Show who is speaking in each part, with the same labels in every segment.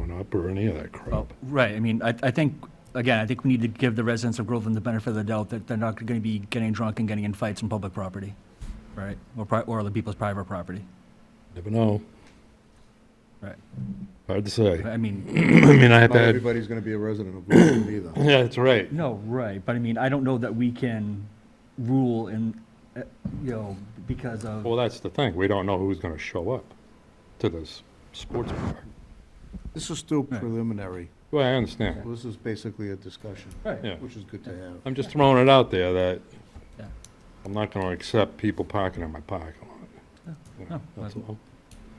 Speaker 1: crop or any of that
Speaker 2: Oh.
Speaker 1: crop.
Speaker 2: Right, I mean, I, I think, again, I think we need to give the residents of Groveland the benefit of the doubt that they're not gonna be getting drunk and getting in fights on public property, right? Or pri, or other people's private property,
Speaker 1: Never know.
Speaker 2: right?
Speaker 1: Hard to say.
Speaker 2: I mean,
Speaker 1: I mean, I have
Speaker 3: Not
Speaker 1: had,
Speaker 3: everybody's going to be a resident of Groveland either.
Speaker 1: yeah, that's right.
Speaker 2: no, right, but I mean, I don't know that we can rule in, uh, you know, because of,
Speaker 1: Well, that's the thing. We don't know who's going to show up to this sports bar.
Speaker 3: This is still
Speaker 2: Right.
Speaker 3: preliminary.
Speaker 1: Well, I understand.
Speaker 3: This is basically a discussion,
Speaker 2: right,
Speaker 1: Yeah.
Speaker 3: which is good to have.
Speaker 1: I'm just throwing it out there that
Speaker 2: Yeah.
Speaker 1: I'm not going to accept people parking in my parking lot. You know,
Speaker 2: No,
Speaker 1: That's
Speaker 2: Oh, well-
Speaker 1: all.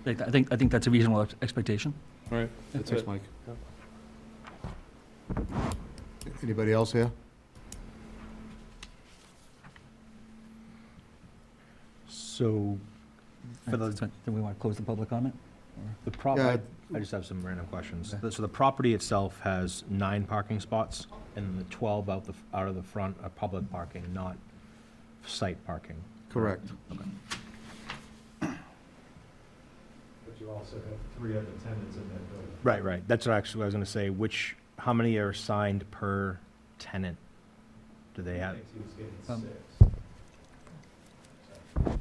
Speaker 2: I think- I think, I think that's a reasonable ex- expectation.
Speaker 1: All right. That's
Speaker 3: Thanks,
Speaker 1: it.
Speaker 3: Mike. Anybody else here?
Speaker 4: So, for
Speaker 2: Right,
Speaker 4: the,
Speaker 2: so Then we wanna close the public comment?
Speaker 4: the
Speaker 3: Yeah.
Speaker 4: property, I just have some random questions. So the property itself has nine parking spots, and the twelve out the, out of the front are public parking, not site parking.
Speaker 3: Correct.
Speaker 5: But you also have three other tenants in that building.
Speaker 4: Right, right, that's what actually I was gonna say, which, how many are assigned per tenant? Do they
Speaker 5: I
Speaker 4: have?
Speaker 5: think he was
Speaker 2: Um,
Speaker 5: getting six.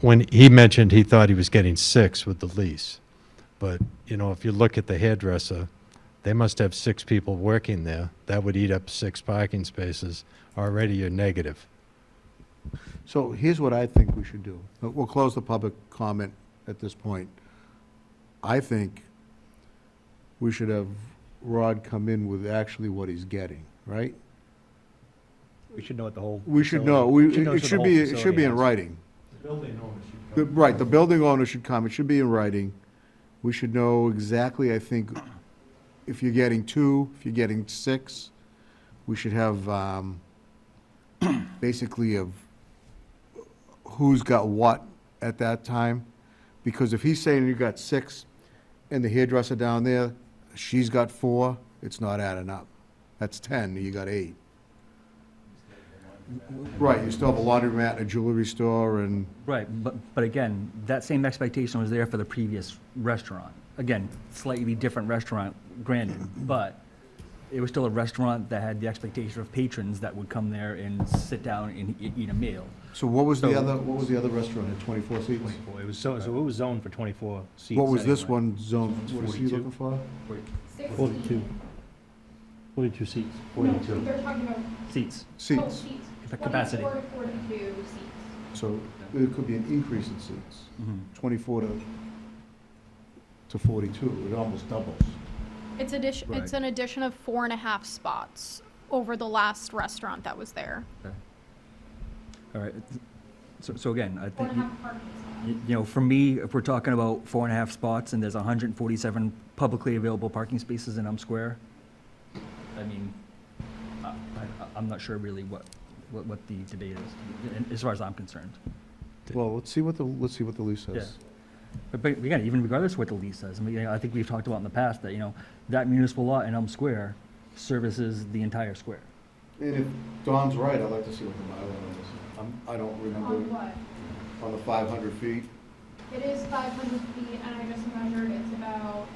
Speaker 6: when he mentioned he thought he was getting six with the lease. But, you know, if you look at the hairdresser, they must have six people working there. That would eat up six parking spaces. Already you're negative.
Speaker 3: So here's what I think we should do. Uh, We'll close the public comment at this point. I think we should have Rod come in with actually what he's getting, right?
Speaker 4: We should know at the whole.
Speaker 3: We should
Speaker 4: facility-
Speaker 3: know, we,
Speaker 4: know
Speaker 3: it
Speaker 4: what
Speaker 3: should
Speaker 4: uh, the
Speaker 3: be,
Speaker 4: whole
Speaker 3: it should be
Speaker 4: facility
Speaker 3: in
Speaker 4: has.
Speaker 3: writing.
Speaker 5: The building owner should
Speaker 3: The-
Speaker 5: come.
Speaker 3: Right, the building owner should come, it should be in writing. We should know exactly, I think, if you're getting two, if you're getting six, we should have, um, basically of who's got what at that time. Because if he's saying you got six, and the hairdresser down there, she's got four, it's not adding up. That's ten, you got eight. Right, you still have a laundry mat, a jewelry store, and
Speaker 2: Right, but, but again, that same expectation was there for the previous restaurant. Again, slightly different restaurant, granted, but it was still a restaurant that had the expectation of patrons that would come there and sit down and e- eat a meal.
Speaker 3: So what was the
Speaker 4: So-
Speaker 3: other, what was the other restaurant at twenty-four seats?
Speaker 4: Well, It was, so, so it was zoned for twenty-four seats.
Speaker 3: What was this
Speaker 4: anyway.
Speaker 3: one zoned, what is he
Speaker 4: 42?
Speaker 3: looking for?
Speaker 7: Forty-two. Forty-two seats. Forty-two. They're talking about
Speaker 2: Seats.
Speaker 7: total
Speaker 3: Seats,
Speaker 7: seats.
Speaker 2: The capacity.
Speaker 7: 44 to 42 seats.
Speaker 3: so there could be an increase in seats,
Speaker 2: Mm-hmm.
Speaker 3: twenty-four to, to forty-two, it almost doubles.
Speaker 8: It's addition, it's an addition of four and a half spots over the last restaurant that was there.
Speaker 2: All right, so, so again, I
Speaker 7: Four
Speaker 2: think,
Speaker 7: and a half parking spots.
Speaker 2: you you know, for me, if we're talking about four and a half spots and there's hundred and forty-seven publicly available parking spaces in Elm Square, I mean, I, I, I'm not sure really what, what, what the debate is, as far as I'm concerned.
Speaker 3: Well, let's see what the, let's see what the lease says.
Speaker 2: But, but again, even regardless of what the lease says, I mean, you know, I think we've talked about in the past that, you know, that municipal lot in Elm Square services the entire square.
Speaker 3: And if Don's right, I'd like to see what the bylaw is. I'm, I don't
Speaker 7: On
Speaker 3: remember,
Speaker 7: what?
Speaker 3: on the five hundred feet,
Speaker 7: It is 500 feet, and I just measured, it's about,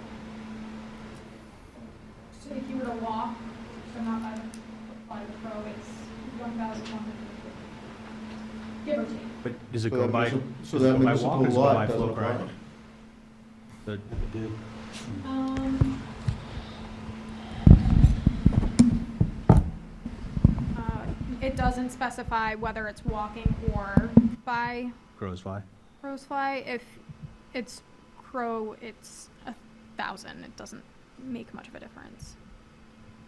Speaker 7: so if you were to walk, so not by, the- by the pro, it's 1,100. Give or take.
Speaker 4: But does it
Speaker 3: So
Speaker 4: go
Speaker 3: that
Speaker 4: by,
Speaker 3: municipal-
Speaker 4: does
Speaker 3: so
Speaker 4: it
Speaker 3: that
Speaker 4: go by walk
Speaker 3: municipal
Speaker 4: or does it
Speaker 3: lot
Speaker 4: go by
Speaker 3: doesn't
Speaker 4: flow
Speaker 3: apply.
Speaker 4: card? The-
Speaker 7: Um. uh, It doesn't specify whether it's walking or by
Speaker 4: Crows fly.
Speaker 7: crow's fly. If it's crow, it's a thousand. It doesn't make much of a difference.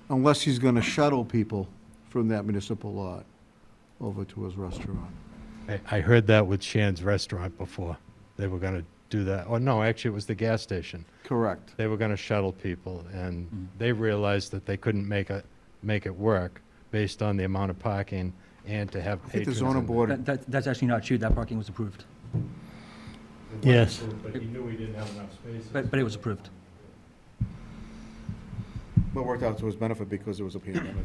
Speaker 3: unless he's gonna shuttle people from that municipal lot over to his restaurant.
Speaker 6: I, I heard that with Shan's restaurant before. They were going to do that. Oh, no, actually, it was the gas station.
Speaker 3: Correct.
Speaker 6: They were going to shuttle people, and they realized that they couldn't make it, make it work based on the amount of parking and to have
Speaker 3: I
Speaker 6: patrons.
Speaker 3: think the zoning
Speaker 6: in there.
Speaker 3: board,
Speaker 2: That, that, that's actually not true, that parking was approved.
Speaker 5: It was
Speaker 6: Yes.
Speaker 5: approved, But he knew he didn't have enough spaces.
Speaker 2: But- but it was approved.
Speaker 3: but worked out to his benefit because it was a pandemic.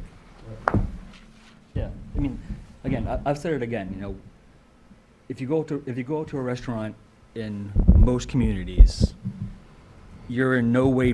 Speaker 2: Yeah, I mean, again, I, I've said it again, you know, if you go to, if you go to a restaurant in most communities, you're in no way